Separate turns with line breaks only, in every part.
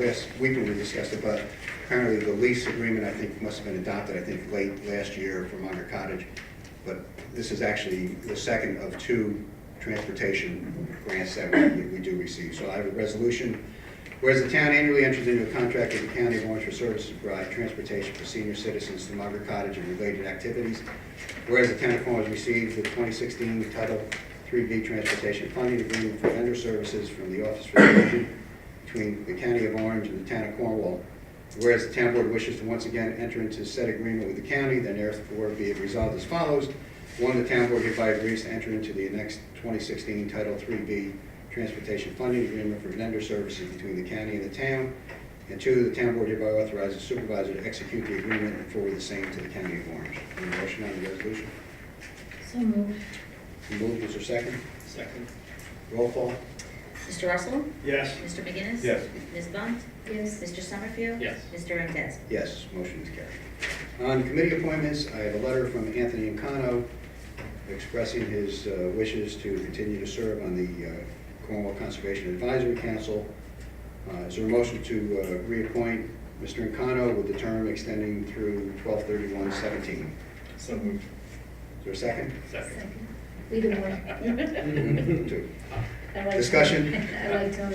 Last week when we discussed it, but apparently the lease agreement, I think, must have been adopted, I think, late last year for Minor Cottage. But this is actually the second of two transportation grants that we, we do receive. So I have a resolution. Whereas the town annually enters into a contract with the County of Orange for services to provide transportation for senior citizens to Minor Cottage and related activities. Whereas the town of Orange received the 2016 Title III B Transportation Funding Agreement for Vendor Services from the Office for the Aging between the County of Orange and the Town of Cornwall. Whereas the town board wishes to once again enter into said agreement with the county, then therefore be it resolved as follows. One, the town board hereby agrees to enter into the next 2016 Title III B Transportation Funding Agreement for vendor services between the county and the town. And two, the town board hereby authorizes supervisor to execute the agreement and forward the same to the County of Orange. Any motion on the resolution?
So moved.
Moved, is there a second?
Second.
Roll call?
Mr. Russell?
Yes.
Mr. McGinnis?
Yes.
Ms. Bunt?
Yes.
Mr. Summerfield?
Yes.
Mr. Randazzo?
Yes, motion is carried. On committee appointments, I have a letter from Anthony Incano expressing his uh, wishes to continue to serve on the uh, Cornwall Conservation Advisory Council. Uh, Is there a motion to uh, reappoint Mr. Incano with the term extending through 12/31/17?
So moved.
Is there a second?
Second.
Either one.
Two.
I like
Discussion?
Tom. I um, like Tom.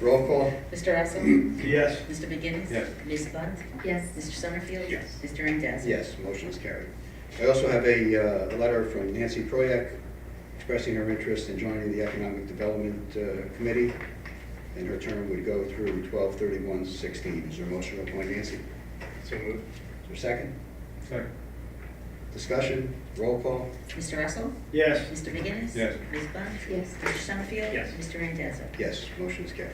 Roll call?
Mr. Russell?
Yes.
Mr. McGinnis?
Yes.
Ms. Bunt?
Yes.
Mr. Summerfield?
Yes.
Mr. Randazzo?
Yes, motion is carried. I also have a, uh, a letter from Nancy Proyak expressing her interest in joining the Economic Development uh, Committee, and her term would go through twelve thirty-one sixteen. Is there a motion to appoint Nancy? Is
So moved.
there a second?
Second.
Discussion, roll call?
Mr. Russell?
Yes.
Mr. McGinnis?
Yes.
Ms. Bunt?
Yes.
Mr. Summerfield?
Yes.
Mr. Randazzo?
Yes, motion is carried.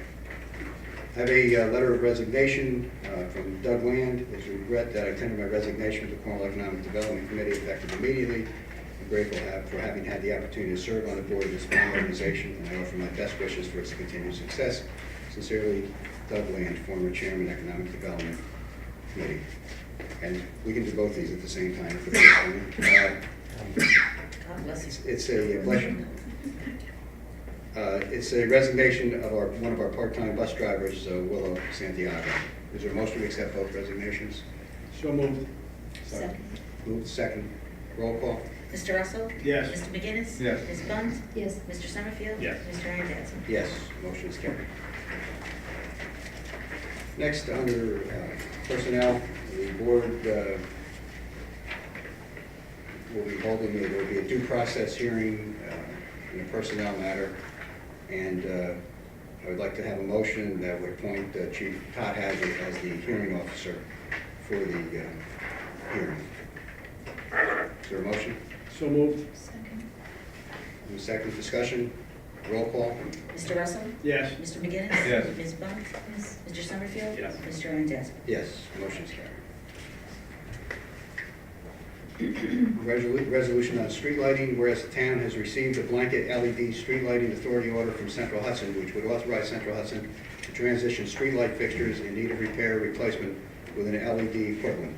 I have a uh, letter of resignation uh, from Doug Land. It's a regret that I tendered my resignation to the Cornwall Economic Development Committee effective immediately. I'm grateful to have- for having had the opportunity to serve on the board of this fine organization, and I offer my best wishes for its continued success. Sincerely, Doug Land, former chairman, Economic Development Committee. And we can do both these at the same time. if it's- uh,
God bless you.
It's a pleasure. Uh, It's a resignation of our, one of our part-time bus drivers, uh, Willow Santiago. Is there a motion to accept both resignations?
So moved.
Second.
Move second. Roll call?
Mr. Russell?
Yes.
Mr. McGinnis?
Yes.
Ms. Bunt?
Yes.
Mr. Summerfield?
Yes.
Mr. Randazzo?
Yes, motion is carried. Next, under uh, personnel, the board uh, will be holding, there will be a due process hearing uh, in a personnel matter. And uh, I would like to have a motion that would appoint uh, Chief Todd Hazard as the hearing officer for the uh, hearing. Is there a motion?
So moved.
Second.
Any second discussion? Roll call?
Mr. Russell?
Yes.
Mr. McGinnis?
Yes.
Ms. Bunt?
Yes.
Mr. Summerfield?
Yes.
Mr. Randazzo?
Yes, motion's carried. Resolu- Resolution on street lighting, whereas the town has received a blanket LED street lighting authority order from Central Hudson, which would authorize Central Hudson to transition street light fixtures in need of repair or replacement with an LED equivalent.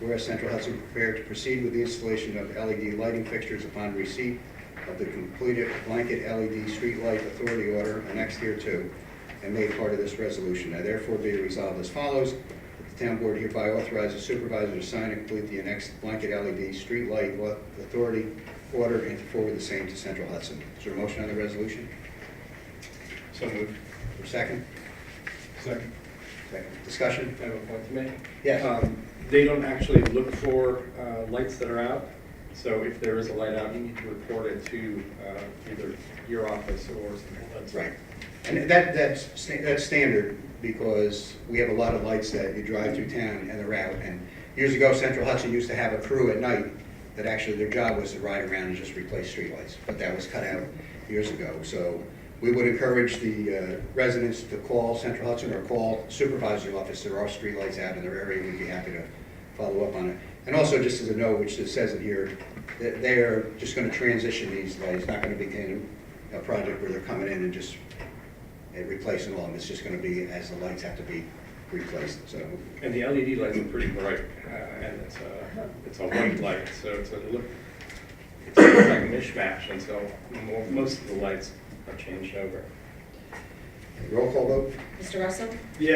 Whereas Central Hudson prepared to proceed with the installation of LED lighting fixtures upon receipt of the completed blanket LED street light authority order annexed here too, and made part of this resolution. Now therefore be resolved as follows, that the town board hereby authorizes supervisor to sign and complete the annexed blanket LED street light wa- authority order and to forward the same to Central Hudson. Is there a motion on the resolution?
So moved.
Or second?
Second.
Second. Discussion?
I have a point to make.
Yes.
Um, They don't actually look for uh, lights that are out, so if there is a light out, you need to report it to uh, either your office or something.
That's right. And that, that's, sta- that's standard, because we have a lot of lights that you drive through town and they're out. And years ago, Central Hudson used to have a crew at night that actually their job was to ride around and just replace streetlights, but that was cut out years ago. So we would encourage the uh, residents to call Central Hudson or call supervisory office, there are streetlights out in their area, we'd be happy to follow up on it. And also, just as a note, which it says it here, that they are just gonna transition these lights, It's not gonna be in a project where they're coming in and just uh, replacing all of them. It's just gonna be as the lights have to be replaced, so,
And the LED lights are pretty bright, uh, and it's a, it's a white light, so it's a look, it's sort of like a mishmash until mo- most of the lights are changed over.
roll call vote?
Mr. Russell?